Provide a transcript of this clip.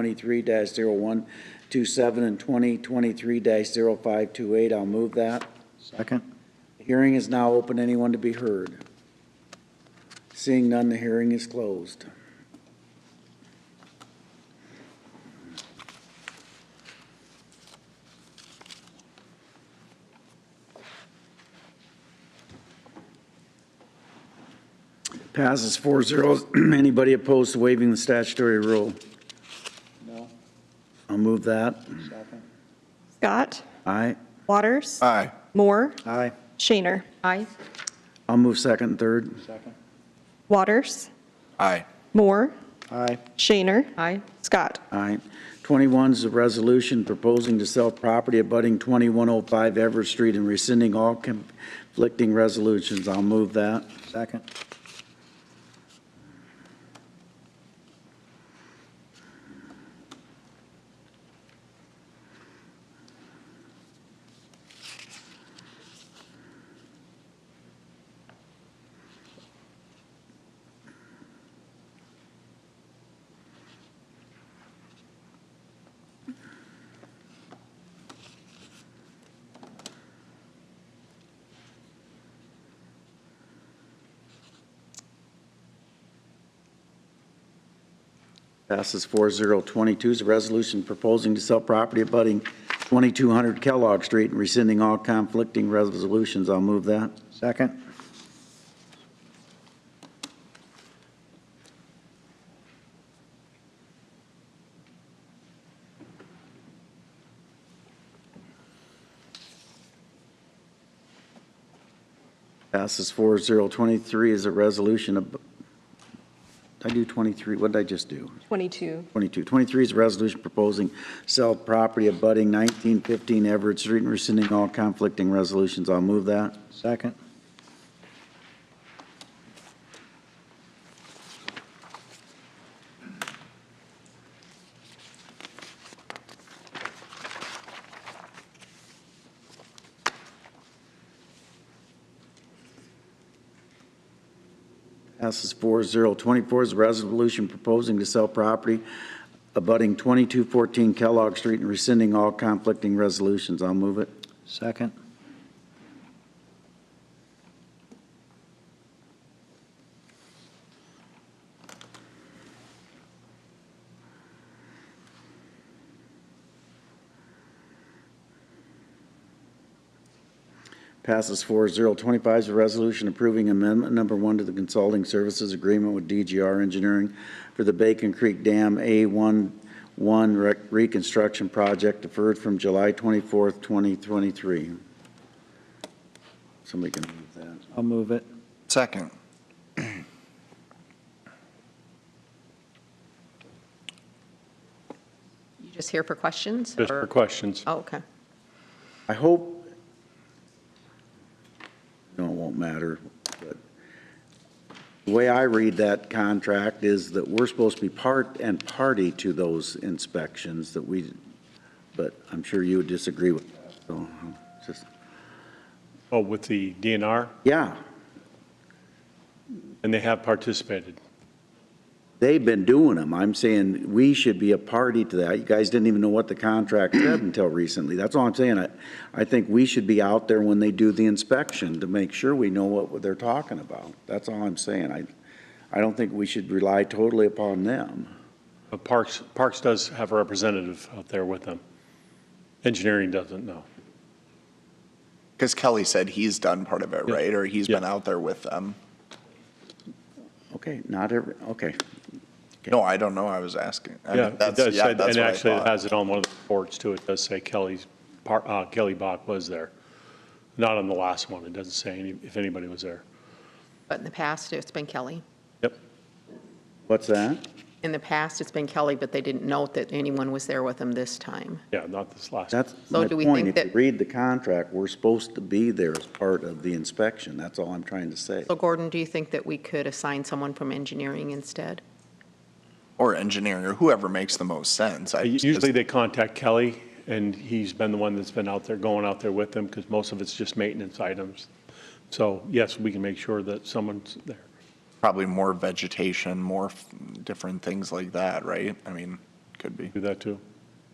twenty-three dash and twenty twenty-three dash I'll move that. Second. Hearing is now open, anyone to be heard? Seeing none, the hearing is closed. Passes four zeros. Anybody opposed to waiving the statutory rule? No. I'll move that. Second. Scott. Aye. Waters. Aye. Moore. Aye. Shaner. Aye. I'll move second and third. Second. Waters. Aye. Moore. Aye. Shaner. Aye. Scott. Aye. 21 is a resolution proposing to sell property abutting 2105 Everett Street and rescinding all conflicting resolutions. I'll move that. Second. Passes 4022 is a resolution proposing to sell property abutting 2200 Kellogg Street and rescinding all conflicting resolutions. I'll move that. Second. Passes 4023 is a resolution of, did I do 23? What did I just do? 22. 22. 23 is a resolution proposing sell property abutting 1915 Everett Street and rescinding all conflicting resolutions. I'll move that. Second. Passes 4-0. 24 is a resolution proposing to sell property abutting 2214 Kellogg Street and rescinding all conflicting resolutions. I'll move it. Second. Passes 4-0. 25 is a resolution approving amendment number one to the consulting services agreement with DGR Engineering for the Bacon Creek Dam A11 rec- reconstruction project deferred from July 24th, 2023. Somebody can move that. I'll move it. Second. You just here for questions? Just for or- uh, questions. Oh, okay. I hope, no, it won't matter, but the way I read that contract is that we're supposed to be part and party to those inspections that we, but I'm sure you would disagree with that, so, just, Oh, with the DNR, yeah, and they have participated. they've been doing them. I'm saying we should be a party to that. You guys didn't even know what the contract said until recently. That's all I'm saying. I, I think we should be out there when they do the inspection to make sure we know what they're talking about. That's all I'm saying. I, I don't think we should rely totally upon them. But Parks, Parks does have a representative out there with them. Engineering doesn't, no. Because Kelly said he's done part of it, Yeah. right? Or he's Yeah. been out there with them. Okay, not every, okay. No, I don't know. I was asking. I mean, Yeah, it that's- does yeah, say, that's and what I actually it thought. has it on one of the reports too. It does say Kelly's, par- uh, Kelly Bach was there. Not on the last one. It doesn't say any- if anybody was there. But in the past, it's been Kelly. Yep. What's that? In the past, it's been Kelly, but they didn't note that anyone was there with them this time. Yeah, not this last. That's So my do we point. think If you that- read the contract, we're supposed to be there as part of the inspection. That's all I'm trying to say. So Gordon, do you think that we could assign someone from engineering instead? Or engineering, or whoever makes the most sense. I just- Uh, Usually they contact Kelly, and he's been the one that's been out there, going out there with them, because most of it's just maintenance items. So yes, we can make sure that someone's there. Probably more vegetation, more f- different things like that, right? I mean, could be. do that too.